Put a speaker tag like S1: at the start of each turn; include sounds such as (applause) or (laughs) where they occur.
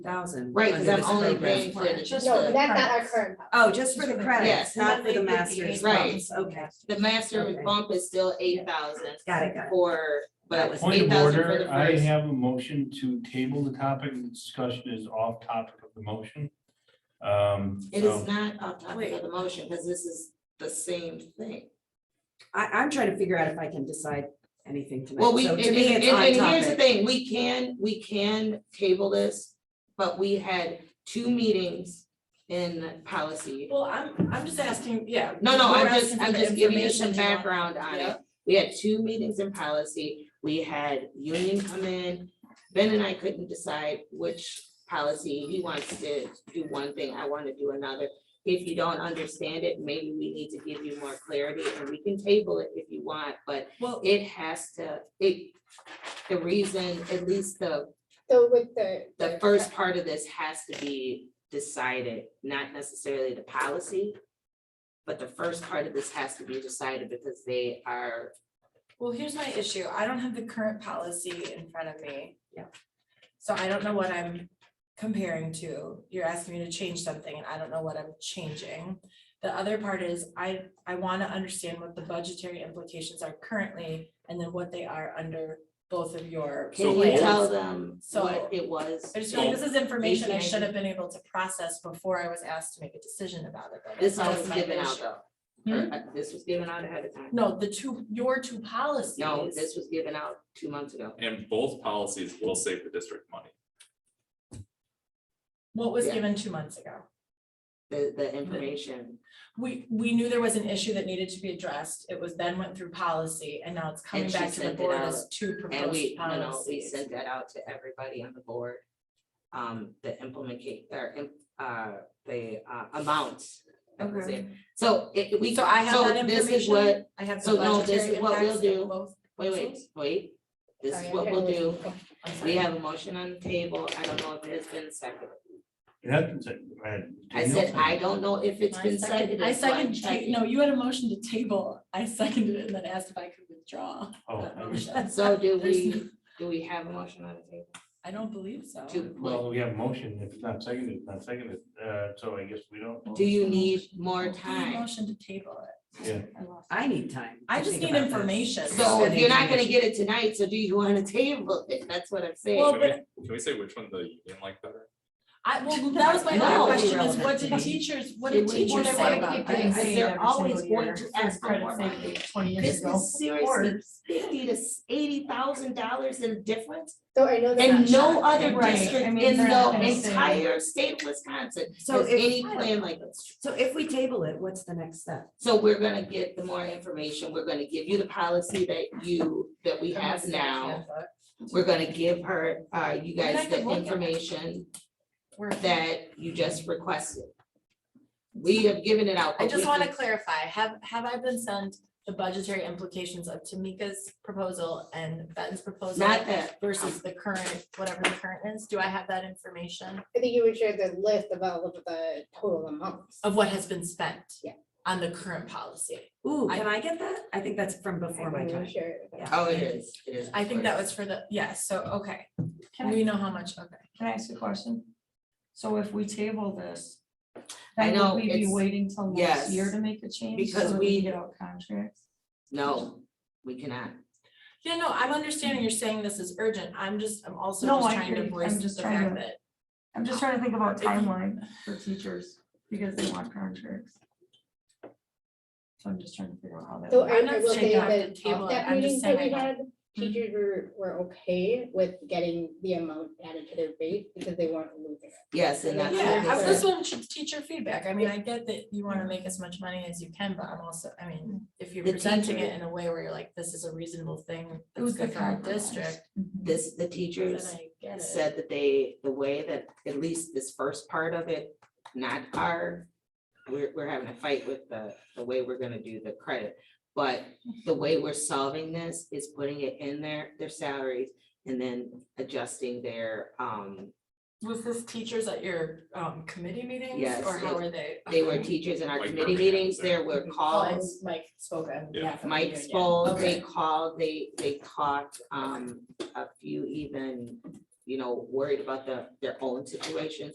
S1: thousand.
S2: Right, cause
S1: under
S2: I'm
S1: this
S2: only
S1: program.
S2: paying for the, just
S3: No, but
S2: the,
S3: that's not our current.
S1: Oh, just for the
S2: Yes.
S1: credits, not for the master's
S2: Right.
S1: bumps, okay,
S2: the master
S1: Okay.
S2: bump is still eight thousand
S1: got it, got it.
S2: for, but it was
S4: Point
S2: eight
S4: of
S2: thousand for the
S4: order, I
S2: first.
S4: have a motion to table the topic, the discussion is off topic of the motion. Um,
S2: It
S4: so-
S2: is not off topic of the motion, cause this is the same thing.
S1: I, I'm trying to figure out if I can decide anything tonight,
S2: Well, we,
S1: so
S2: and,
S1: to me,
S2: and-
S1: it's
S2: and- and
S1: on
S2: here's the
S1: topic.
S2: thing, we can, we can table this, but we had two meetings in policy.
S5: Well, I'm, I'm just asking, yeah.
S2: No, no, I'm
S5: we're
S2: just,
S5: asking
S2: I'm
S5: for
S2: just giving you some
S5: information on-
S2: background on
S5: Yeah.
S2: it. We had two meetings in policy, we had union come in, Ben and I couldn't decide which policy, he wants to do one thing, I wanna do another. If you don't understand it, maybe we need to give you more clarity, and we can table it if you want, but
S5: Well,
S2: it has to, it, the reason, at least the
S3: So with the.
S2: the first part of this has to be decided, not necessarily the policy. But the first part of this has to be decided because they are,
S5: well, here's my issue. I don't have the current policy in front of me.
S1: Yeah.
S5: So I don't know what I'm comparing to. You're asking me to change something and I don't know what I'm changing. The other part is I, I want to understand what the budgetary implications are currently and then what they are under both of your
S2: can you
S5: plans.
S2: tell them
S5: So-
S2: what it was?
S5: I just feel like this is information I
S2: Maybe I
S5: should have
S2: can-
S5: been able to process before I was asked to make a decision about it. but
S2: This
S5: that
S2: was
S5: was my
S2: given
S5: issue.
S2: out though. Or, uh, This was given out ahead of time.
S5: No, the two, your two policies.
S2: No, this was given out two months ago.
S6: And both policies will save the district money.
S5: What was
S2: Yeah.
S5: given two months ago?
S2: The, the information,
S5: We, we knew there was an issue that needed to be addressed. It was then went through policy and now it's coming
S2: And she
S5: back to the
S2: sent it
S5: board
S2: out,
S5: as two
S2: and we,
S5: proposed
S2: you know, we
S5: policies.
S2: sent that out to everybody on the board. Um, the implement, or, im- uh, the, uh, amounts. That was
S5: Okay.
S2: it. So it, we,
S5: So I have
S2: so
S5: that
S2: this is
S5: information.
S2: what
S5: I have the
S2: so no, this
S5: budgetary
S2: is what we'll
S5: impacts of
S2: do.
S5: both
S2: Wait, wait,
S5: proposals.
S2: wait, this
S3: Sorry,
S2: is
S3: I'm
S2: what we'll
S3: trying to
S2: do,
S3: listen.
S5: I'm sorry.
S2: we have a motion on the table, I don't know if it has been seconded.
S4: It hasn't said, right,
S2: I
S4: Danielle
S2: said, I don't know if it's
S7: I
S2: been
S7: second-
S2: seconded.
S7: I
S2: so I'm
S7: second, ta-
S2: checking.
S7: no, you had a motion to table, I seconded it and then asked if I could withdraw that
S4: Oh,
S7: motion.
S2: So do
S7: There's
S2: we,
S7: no-
S2: do we have a motion on the table?
S7: I don't believe so.
S2: To-
S4: well, we have a motion, if it's not seconded, it's not seconded, uh, so I guess we don't.
S2: Do you need more
S7: Well, I had a
S2: time?
S7: Motion to table it.
S4: Yeah.
S7: I lost it.
S1: I need time. to
S5: I just
S1: think
S5: need
S1: about this.
S5: information.
S2: So if
S1: Spending
S2: you're not gonna
S1: information.
S2: get it tonight, so do you wanna (laughs) table it, that's what I'm saying.
S5: Well,
S6: Can we,
S5: but-
S6: can we say which one the union liked better?
S5: I, well, that was
S2: (laughs)
S5: my
S2: No.
S5: other question is what did
S1: Irrelevant.
S5: teachers, what
S2: Did
S5: did
S2: we
S5: teachers
S2: wanna
S5: say
S2: work
S5: about
S2: with
S5: this?
S2: things? They're always going to ask for more money.
S7: Twenty years
S2: This
S7: ago.
S2: is seriously fifty to eighty thousand dollars in difference,
S3: So I know that.
S2: and no other
S7: Right, I
S2: district
S7: mean,
S2: in
S7: they're not
S2: the
S7: gonna say-
S2: entire state of Wisconsin
S1: So
S2: has
S1: if-
S2: any plan like this.
S1: So if we table it, what's the next step?
S2: So we're gonna get the more information, we're gonna give you the policy that you, that we have now. We're gonna give her, uh, you
S5: I mean, I
S2: guys the
S5: could look at it.
S2: information
S5: We're-
S2: that you just requested. We have given it out.
S5: I
S2: but
S5: just
S2: we
S5: wanna
S2: can-
S5: clarify, have, have I been sent the budgetary implications of Tamika's proposal and Ben's proposal?
S2: Not that.
S5: Versus the current, whatever the current is, do I have that information
S3: I think you would share the list of all of the total amounts.
S2: Oh,
S5: of what has been spent?
S3: Yeah.
S5: On the current policy,
S1: Ooh,
S5: I-
S1: can I get that? I think that's from before my
S3: I'm
S1: time.
S3: sure it was.
S1: Yeah.
S2: Oh, it is, it is.
S5: I think that was for the, yes, so, okay,
S7: Can I,
S5: we know how much, okay.
S7: can I ask a question? So if we table this,
S2: I
S7: then
S2: know,
S7: would we be
S2: it's-
S7: waiting till next
S2: yes,
S7: year to make a change? so
S2: because
S7: that
S2: we-
S7: can Get out contracts?
S2: No, we cannot.
S5: Yeah, no, I'm understanding you're saying this is urgent, I'm just, I'm also
S7: No,
S5: just
S7: I
S5: trying
S7: hear
S5: to
S7: you. I'm
S5: voice the
S7: just trying
S5: fact
S7: to-
S5: that,
S7: I'm just trying to think about
S5: If you-
S7: timeline for teachers because they want contracts. So I'm just trying to figure out how that.
S3: So
S7: works.
S3: I
S5: I'm
S3: I
S5: not
S3: will
S5: saying
S3: say
S5: you have
S3: that
S5: to table it,
S3: that
S5: I'm
S3: meeting
S5: just
S3: that
S5: saying
S3: we
S5: I have,
S3: had,
S2: Hmm.
S3: teachers were, were okay with getting the amount added to their rate because they weren't losing it.
S2: Yes, and that's.
S5: yeah,
S2: what
S5: I-
S2: we
S5: this
S2: said.
S5: one should teacher feedback, I mean, I get that you wanna make as much money as you can, but I'm also, I mean, if you're
S2: The
S5: presenting
S2: teacher-
S5: it in a way where you're like, this is a reasonable thing,
S7: It
S5: that's
S7: was
S5: good
S7: the
S5: for our
S7: compromise.
S5: district,
S2: This, the
S5: then
S2: teachers
S5: I get it.
S2: said that they, the way that, at least this first part of it, not our, we're, we're having a fight with the, the way we're gonna do the credit. But the way we're solving this is putting it in their, their salaries and then adjusting their, um,
S5: Was this teachers at your um committee meetings
S2: Yes,
S5: or
S2: it-
S5: how were they?
S2: they were teachers in our
S6: Like
S2: committee meetings, there were
S5: Oh, and
S2: calls.
S5: Mike spoke on
S6: Yeah.
S5: behalf of the
S2: Mike
S5: union.
S2: spoke,
S5: Okay.
S2: they called, they, they talked, um, a few even, you know, worried about the, their own situation.